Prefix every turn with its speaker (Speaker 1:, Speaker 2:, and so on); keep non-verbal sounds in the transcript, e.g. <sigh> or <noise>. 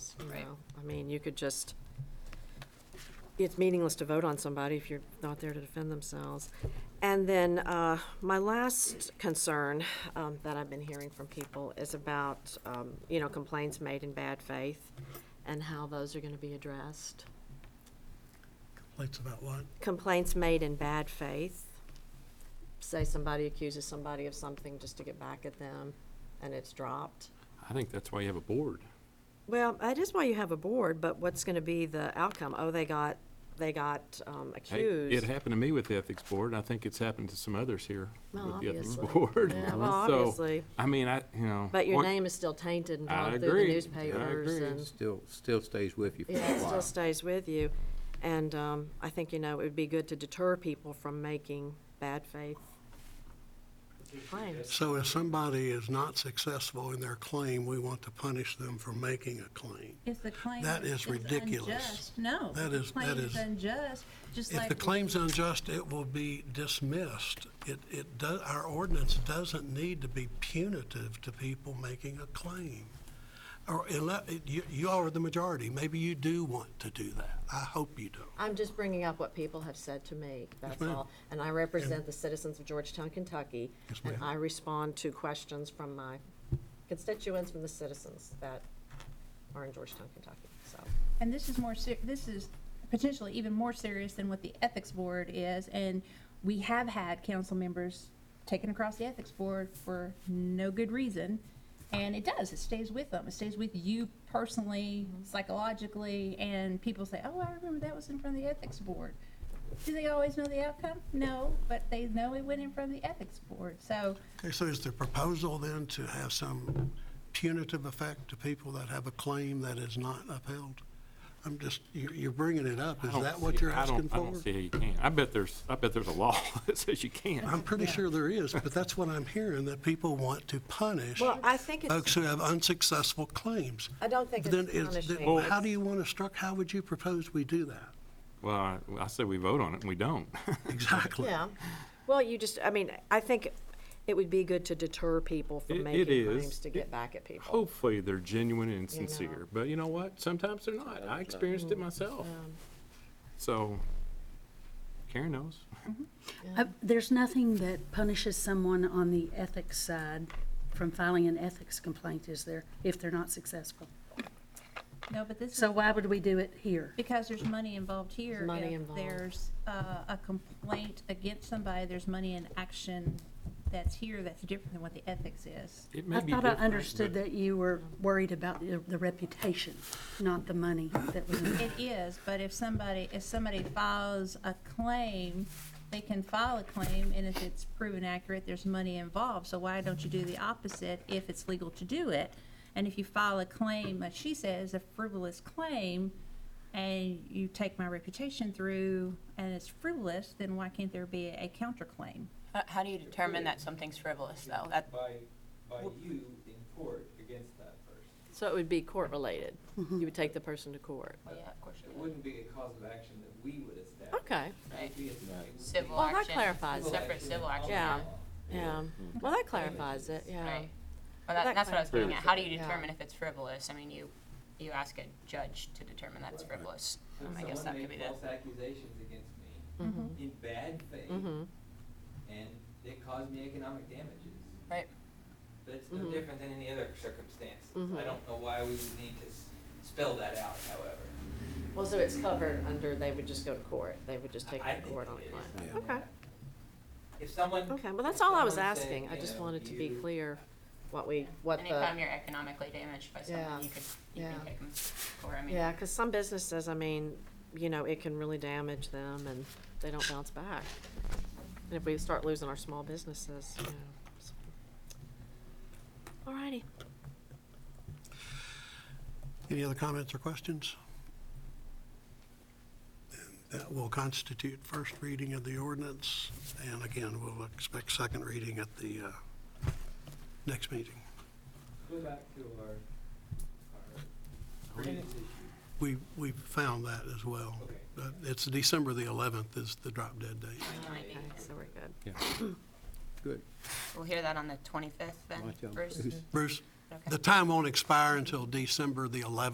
Speaker 1: Right.
Speaker 2: know, I mean, you could just, it's meaningless to vote on somebody if you're not there to defend themselves. And then, uh, my last concern, um, that I've been hearing from people is about, um, you know, complaints made in bad faith and how those are gonna be addressed.
Speaker 3: Lights about what?
Speaker 2: Complaints made in bad faith, say somebody accuses somebody of something just to get back at them and it's dropped.
Speaker 4: I think that's why you have a board.
Speaker 2: Well, that is why you have a board, but what's going to be the outcome? Oh, they got, they got um,
Speaker 4: Hey, It
Speaker 2: accused.
Speaker 4: happened to me with the Ethics Board, and I think it's happened to some others here
Speaker 2: Well,
Speaker 4: with the Ethics
Speaker 2: obviously.
Speaker 4: <laughs> Board.
Speaker 2: Yeah, well,
Speaker 4: So,
Speaker 2: obviously,
Speaker 4: I mean, I, you know.
Speaker 2: but your
Speaker 4: one-
Speaker 2: name is still tainted and
Speaker 4: I
Speaker 2: gone through the
Speaker 4: agree. I
Speaker 2: newspapers
Speaker 4: agree.
Speaker 2: and,
Speaker 5: Still, still stays with you for a
Speaker 2: yeah, it still
Speaker 5: while.
Speaker 2: stays with you. And um, I think, you know, it would be good to deter people from making bad faith claims.
Speaker 3: So if somebody is not successful in their claim, we want to punish them for making a claim.
Speaker 1: If the claim
Speaker 3: That is ridiculous.
Speaker 1: unjust, No.
Speaker 3: That
Speaker 1: if
Speaker 3: is-
Speaker 1: the claim
Speaker 3: that is-
Speaker 1: unjust, just
Speaker 3: If
Speaker 1: like.
Speaker 3: the claim's unjust, it will be dismissed. It, it does, our ordinance doesn't need to be punitive to people making a claim. Or, unless, you, you are the majority, maybe you do want to do that. I hope you don't.
Speaker 2: I'm just bringing up what people have said to me, that's all. And I represent the citizens of Georgetown, Kentucky.
Speaker 3: Yes,
Speaker 2: And
Speaker 3: ma'am.
Speaker 2: I respond to questions from my constituents, from the citizens that are in Georgetown, Kentucky, so.
Speaker 1: And this is more, ser- this is potentially even more serious than what the ethics board is. And we have had council members taken across the ethics board for no good reason. And it does, it stays with them. It stays with you personally, psychologically, and people say, oh, I remember that was in front of the ethics board. Do they always know the outcome? No, but they know it went in front of the ethics board. So
Speaker 3: Okay, so is the proposal then to have some punitive effect to people that have a claim that is not upheld? I'm just, you're, you're bringing it up.
Speaker 4: I
Speaker 3: Is
Speaker 4: don't
Speaker 3: that what
Speaker 4: see-
Speaker 3: you're
Speaker 4: I don't-
Speaker 3: asking
Speaker 4: I
Speaker 3: for?
Speaker 4: don't see how you can. I bet there's, I bet there's a law <laughs> that says you can't.
Speaker 3: I'm pretty sure there is, but that's what I'm hearing, that people want to punish
Speaker 2: Well, I think
Speaker 3: folks
Speaker 2: it's,
Speaker 3: who have unsuccessful claims.
Speaker 2: I don't think
Speaker 3: Then
Speaker 2: it's
Speaker 3: is, then
Speaker 2: punishing.
Speaker 3: how do you want to struck, how would you propose we do that?
Speaker 4: Well, I, I said we vote on it, and we don't. <laughs>
Speaker 3: Exactly.
Speaker 2: Yeah. Well, you just, I mean, I think it would be good to deter people
Speaker 4: It-
Speaker 2: from
Speaker 4: it
Speaker 2: making
Speaker 4: is.
Speaker 2: claims to
Speaker 4: It-
Speaker 2: get back at people.
Speaker 4: Hopefully, they're genuine and
Speaker 2: You know. Mm-hmm.
Speaker 4: sincere, but you know what? Sometimes they're not. I experienced it myself. So, Karen knows.
Speaker 6: Uh, There's nothing that punishes someone on the ethics side from filing an ethics complaint, is there, if they're not successful?
Speaker 1: No, but this is.
Speaker 6: So why would we do it here?
Speaker 1: Because there's money involved here.
Speaker 2: money
Speaker 1: If
Speaker 2: involved.
Speaker 1: There's uh, a complaint against somebody, there's money in action that's here that's different than what the ethics is.
Speaker 4: It may
Speaker 6: I
Speaker 4: be
Speaker 6: thought I
Speaker 4: different,
Speaker 6: understood
Speaker 4: but-
Speaker 6: that you were worried about the the reputation, not the money that was involved.
Speaker 1: It is, but if somebody, if somebody files a claim, they can file a claim, and if it's proven accurate, there's money involved. So why don't you do the opposite if it's legal to do it? And if you file a claim, like she says, a frivolous claim, and you take my reputation through, and it's frivolous, then why can't there be a counterclaim?
Speaker 7: How- Uh, How do you determine that something's frivolous, though? That,
Speaker 8: by, by you in court against that person.
Speaker 2: So it would be court-related. You would take the person to court.
Speaker 7: yeah, of course
Speaker 8: It
Speaker 7: you would.
Speaker 8: wouldn't be a cause of action that we would establish.
Speaker 2: Okay,
Speaker 8: It would be a- it would be
Speaker 7: Civil
Speaker 2: Well, that
Speaker 7: action.
Speaker 2: clarifies it.
Speaker 7: Separate civil action.
Speaker 2: Yeah. yeah. Well, that clarifies it, yeah.
Speaker 7: Right. Well, that,
Speaker 2: That
Speaker 7: that's what I was getting at. How do
Speaker 2: clarifies
Speaker 7: you
Speaker 2: it, yeah.
Speaker 7: determine if it's frivolous? I mean, you, you ask a judge to determine that it's frivolous.
Speaker 8: If
Speaker 7: Um, I guess that
Speaker 8: someone
Speaker 7: could be
Speaker 8: made
Speaker 7: the.
Speaker 8: false accusations against me
Speaker 2: Mm-hmm.
Speaker 8: in bad faith, and it caused me economic damages,
Speaker 7: Right.
Speaker 8: that's no
Speaker 2: Mm-hmm.
Speaker 8: different than any other circumstance. I don't know why we would need to s- spell that out, however.
Speaker 2: Well, so it's covered under, they would just go to court. They would just take
Speaker 8: I- I
Speaker 2: it to
Speaker 8: think
Speaker 2: court on
Speaker 8: it
Speaker 2: a
Speaker 8: is.
Speaker 2: claim.
Speaker 8: Yeah.
Speaker 2: Okay.
Speaker 8: If someone.
Speaker 2: Okay, well, that's
Speaker 8: if
Speaker 2: all I was
Speaker 8: someone said,
Speaker 2: asking, I
Speaker 8: you
Speaker 2: just
Speaker 8: know,
Speaker 2: wanted to be
Speaker 8: you-
Speaker 2: clear what we, what
Speaker 7: Anytime
Speaker 2: the,
Speaker 7: you're economically damaged by
Speaker 2: Yeah.
Speaker 7: something, you could, you
Speaker 2: Yeah.
Speaker 7: can take them to court. I mean,
Speaker 2: yeah, because some businesses, I mean, you know, it can really damage them and they don't bounce back. And if we start losing our small businesses, you know. so. All righty,
Speaker 3: Any other comments or questions? And That will constitute first reading of the ordinance, and again, we'll expect second reading at the, uh, next meeting.
Speaker 8: Go back to our, our previous issue.
Speaker 3: We, we found that as well.
Speaker 8: Okay.
Speaker 3: But it's December the 11th is the drop dead date.
Speaker 7: it might be-
Speaker 2: okay, so we're good.
Speaker 5: Good.
Speaker 7: We'll hear that on the twenty-fifth then,
Speaker 5: Watch out,
Speaker 7: Bruce?
Speaker 5: Bruce.
Speaker 3: Bruce,
Speaker 7: Okay.
Speaker 3: the time won't expire until December the 11th.